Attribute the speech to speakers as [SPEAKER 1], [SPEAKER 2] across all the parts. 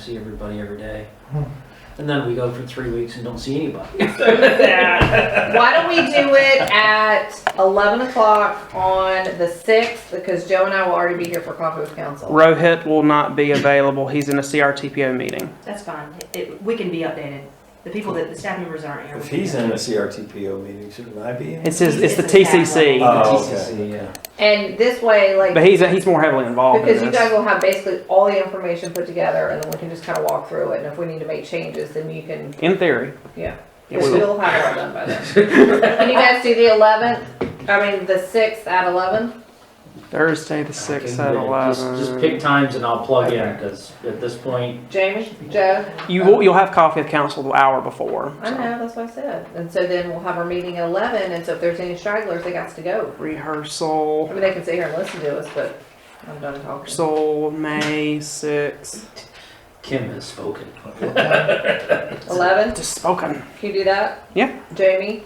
[SPEAKER 1] see everybody every day.
[SPEAKER 2] Hmm.
[SPEAKER 1] And then we go for three weeks and don't see anybody.
[SPEAKER 3] Why don't we do it at eleven o'clock on the sixth, because Joe and I will already be here for coffee with council.
[SPEAKER 2] Rohit will not be available. He's in a CRTPO meeting.
[SPEAKER 4] That's fine. It, we can be updated. The people that, the staff members aren't here.
[SPEAKER 5] If
[SPEAKER 4] we can
[SPEAKER 5] he's
[SPEAKER 4] be
[SPEAKER 5] in a
[SPEAKER 4] updated.
[SPEAKER 5] CRTPO meeting, shouldn't I be in?
[SPEAKER 2] It's his, it's the
[SPEAKER 4] He's- it's a
[SPEAKER 2] TCC,
[SPEAKER 5] tablet.
[SPEAKER 1] The
[SPEAKER 5] Oh,
[SPEAKER 1] TCC, yeah.
[SPEAKER 3] And this way, like,
[SPEAKER 2] but he's, he's more heavily involved in
[SPEAKER 3] because you guys
[SPEAKER 2] this.
[SPEAKER 3] will have basically all the information put together, and then we can just kind of walk through it, and if we need to make changes, then you can,
[SPEAKER 2] In theory.
[SPEAKER 3] yeah.
[SPEAKER 2] Yeah,
[SPEAKER 3] Because
[SPEAKER 2] we will.
[SPEAKER 3] we'll have it all done by then. Can you guys do the eleventh, I mean, the sixth at eleven?
[SPEAKER 2] Thursday, the sixth
[SPEAKER 1] Okay,
[SPEAKER 2] at
[SPEAKER 1] yeah, just- Just pick
[SPEAKER 2] eleven. times.
[SPEAKER 1] times and I'll plug in, because at this point,
[SPEAKER 3] Jamie, Joe?
[SPEAKER 2] You will, you'll have coffee with council the hour before.
[SPEAKER 3] I know,
[SPEAKER 2] so.
[SPEAKER 3] that's what I said. And so then we'll have our meeting at eleven, and so if there's any stragglers, they got to go. I
[SPEAKER 2] Rehearsal,
[SPEAKER 3] mean, they can sit here and listen to us, but I'm done talking.
[SPEAKER 2] rehearsal, May sixth.
[SPEAKER 1] Kim has spoken.
[SPEAKER 3] Eleven,
[SPEAKER 2] Just spoken.
[SPEAKER 3] can you do that?
[SPEAKER 2] Yeah.
[SPEAKER 3] Jamie?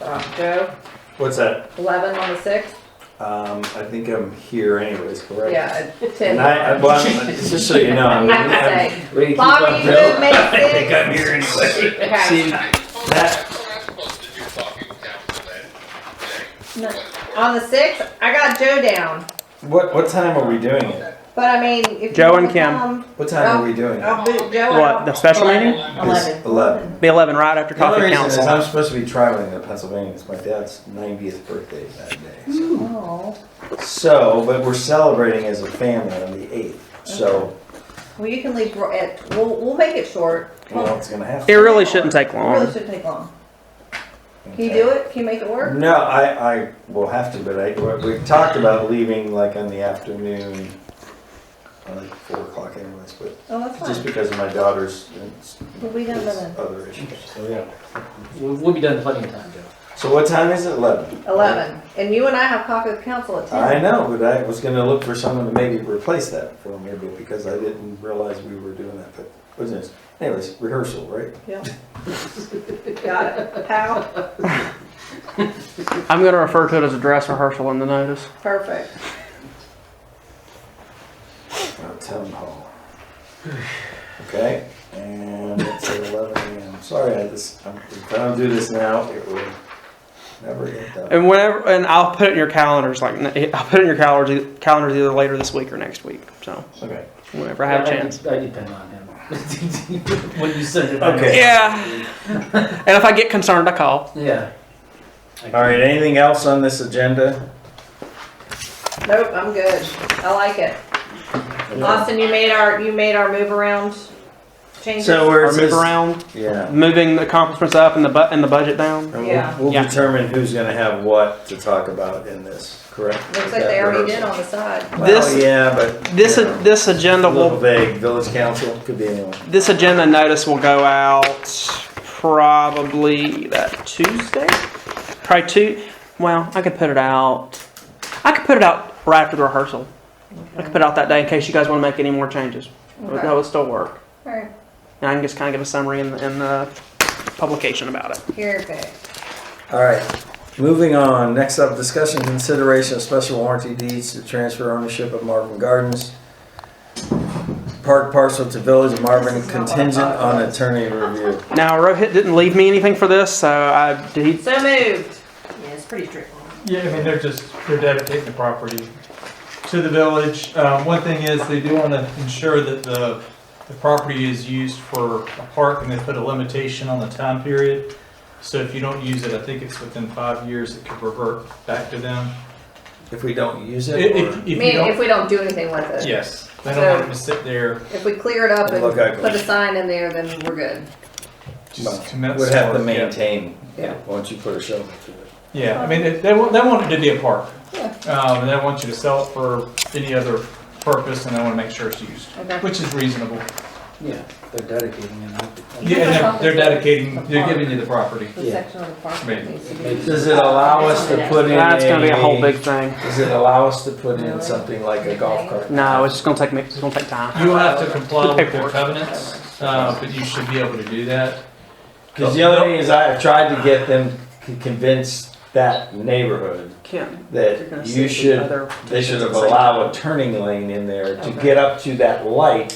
[SPEAKER 3] Uh, Joe,
[SPEAKER 5] What's that?
[SPEAKER 3] eleven on the sixth?
[SPEAKER 5] Um, I think I'm here anyways, correct?
[SPEAKER 3] Yeah, at
[SPEAKER 5] And
[SPEAKER 3] ten.
[SPEAKER 5] I, I, well, I'm- just so you know, I'm,
[SPEAKER 3] I have to
[SPEAKER 5] I'm-
[SPEAKER 3] say,
[SPEAKER 1] Ready to keep
[SPEAKER 3] Bobby,
[SPEAKER 1] up,
[SPEAKER 3] you
[SPEAKER 1] Bill?
[SPEAKER 3] moved May
[SPEAKER 5] I think
[SPEAKER 3] sixth.
[SPEAKER 5] I'm here anyway.
[SPEAKER 3] Okay,
[SPEAKER 5] See, that,
[SPEAKER 3] on the sixth, I got Joe down,
[SPEAKER 5] what, what time are we doing it?
[SPEAKER 3] but I mean, if you.
[SPEAKER 2] Joe and
[SPEAKER 3] wanna
[SPEAKER 2] Kim.
[SPEAKER 3] come,
[SPEAKER 5] What time
[SPEAKER 3] Oh,
[SPEAKER 5] are we doing it?
[SPEAKER 3] I'll boot Joe
[SPEAKER 2] What, the
[SPEAKER 3] out.
[SPEAKER 2] special meeting?
[SPEAKER 5] It's Eleven.
[SPEAKER 2] Be eleven right after
[SPEAKER 5] The
[SPEAKER 2] coffee
[SPEAKER 5] only
[SPEAKER 2] with
[SPEAKER 5] reason is
[SPEAKER 2] council.
[SPEAKER 5] I'm supposed to be traveling to Pennsylvania. It's my dad's ninetieth birthday that day. so-
[SPEAKER 3] Oh,
[SPEAKER 5] So, but we're celebrating as a family on the eighth, so,
[SPEAKER 3] well, you can leave, right at- we'll, we'll make it short.
[SPEAKER 5] you know, it's gonna have
[SPEAKER 2] It
[SPEAKER 5] to.
[SPEAKER 2] really shouldn't take
[SPEAKER 3] It really
[SPEAKER 2] long.
[SPEAKER 3] shouldn't take long. Can you do it? Can you make it work?
[SPEAKER 5] No, I, I will have to, but I, we we talked about leaving like on the afternoon, uh, like four o'clock anyways, but
[SPEAKER 3] Oh, that's
[SPEAKER 5] just
[SPEAKER 3] fine.
[SPEAKER 5] because of my daughter's and s-
[SPEAKER 3] We'll be done by then.
[SPEAKER 5] other issues. So, yeah.
[SPEAKER 1] We'll we'll be done plenty of time, Joe.
[SPEAKER 5] So what time is it? Eleven?
[SPEAKER 3] Eleven. And you and I have coffee with council at
[SPEAKER 5] I
[SPEAKER 3] ten.
[SPEAKER 5] know, but I was gonna look for someone to maybe replace that for me, but because I didn't realize we were doing that, but, what's this? Anyways, rehearsal, right?
[SPEAKER 3] Yeah. Got it. Pal,
[SPEAKER 2] I'm gonna refer to it as a dress rehearsal in the notice.
[SPEAKER 3] perfect.
[SPEAKER 5] Uh, Town hall. Okay, and it's at eleven AM. Sorry, I just, I'm- if I don't do this now, it will never get done.
[SPEAKER 2] And whenever, and I'll put it in your calendars, like, I'll put it in your calendars, calendars either later this week or next week, so,
[SPEAKER 5] Okay.
[SPEAKER 2] whenever I have a
[SPEAKER 1] Yeah,
[SPEAKER 2] chance.
[SPEAKER 1] de- I depend on him. When you send it. I know.
[SPEAKER 5] Okay.
[SPEAKER 2] Yeah. And if I get concerned, I call.
[SPEAKER 1] Yeah.
[SPEAKER 5] All right, anything else on this agenda?
[SPEAKER 3] Nope, I'm good. I like it. Austin, you made our, you made our move around changes.
[SPEAKER 5] So we're.
[SPEAKER 2] Or move around,
[SPEAKER 5] Yeah.
[SPEAKER 2] moving the accomplishments up and the bu, and the budget down.
[SPEAKER 5] And
[SPEAKER 3] Yeah.
[SPEAKER 5] we'll, we'll
[SPEAKER 2] Yeah.
[SPEAKER 5] determine who's gonna have what to talk about in this, correct?
[SPEAKER 3] Looks like they already did on the side.
[SPEAKER 5] Well,
[SPEAKER 2] This-
[SPEAKER 5] yeah, but.
[SPEAKER 2] This,
[SPEAKER 5] you know,
[SPEAKER 2] this agenda
[SPEAKER 5] A little
[SPEAKER 2] will,
[SPEAKER 5] vague, village council, could be anyone.
[SPEAKER 2] this agenda notice will go out probably that Tuesday? Probably two, well, I could put it out, I could put it out right after the rehearsal. I could put it out that day in case you guys wanna make any more changes. But
[SPEAKER 3] Okay.
[SPEAKER 2] that would still work.
[SPEAKER 3] Alright,
[SPEAKER 2] And I can just kind of give a summary in, in the publication about it.
[SPEAKER 3] here, okay.
[SPEAKER 5] All right, moving on. Next up, discussion and consideration of special warranty deeds to transfer ownership of Marvin Gardens. Park parcel to Village of Marvin contingent on attorney review.
[SPEAKER 2] Now, Rohit didn't leave me anything for this, so I did. He,
[SPEAKER 3] So moved.
[SPEAKER 4] Yeah, it's pretty straightforward.
[SPEAKER 6] Yeah, I mean, they're just, they're dedicating the property to the village. Um, one thing is, they do wanna ensure that the, the property is used for a park, and they put a limitation on the time period. So if you don't use it, I think it's within five years, it could revert back to them.
[SPEAKER 5] If we don't use
[SPEAKER 6] If,
[SPEAKER 5] it,
[SPEAKER 6] if-
[SPEAKER 5] or-
[SPEAKER 6] if you
[SPEAKER 3] Meaning if
[SPEAKER 6] don't,
[SPEAKER 3] we don't do anything with it.
[SPEAKER 6] yes, they don't want it to sit there,
[SPEAKER 3] If we clear it up and
[SPEAKER 5] Look ugly.
[SPEAKER 3] put a sign in there, then we're good.
[SPEAKER 6] just commence.
[SPEAKER 5] would have to
[SPEAKER 6] work, yeah.
[SPEAKER 5] maintain,
[SPEAKER 3] Yeah.
[SPEAKER 5] once you put a shovel through it.
[SPEAKER 6] Yeah, I mean, they, they want, they want it to be a park.
[SPEAKER 3] Yeah.
[SPEAKER 6] Um, and they want you to sell it for any other purpose, and they wanna make sure it's used,
[SPEAKER 3] Okay.
[SPEAKER 6] which is reasonable.
[SPEAKER 1] Yeah, they're dedicating it.
[SPEAKER 6] Yeah, and they're, they're dedicating, they're giving you the property.
[SPEAKER 3] The
[SPEAKER 1] Yeah.
[SPEAKER 3] section of the park that
[SPEAKER 6] Maybe.
[SPEAKER 3] needs to be.
[SPEAKER 5] Does it allow us to put in a?
[SPEAKER 2] that's going to be a whole big thing.
[SPEAKER 5] Does it allow us to put in something like a golf cart?
[SPEAKER 2] No, it's just going to take me. It's going to take time.
[SPEAKER 6] You will have to comply with their
[SPEAKER 2] Paperwork.
[SPEAKER 6] covenants, uh, but you should be able to do that.
[SPEAKER 5] Because the other thing is, I have tried to get them c- convinced that neighborhood,
[SPEAKER 2] Kim, you're gonna
[SPEAKER 5] that
[SPEAKER 2] see
[SPEAKER 5] you
[SPEAKER 2] the
[SPEAKER 5] should,
[SPEAKER 2] other.
[SPEAKER 5] they should have allowed a turning lane in there to
[SPEAKER 2] Okay.
[SPEAKER 5] get up to that light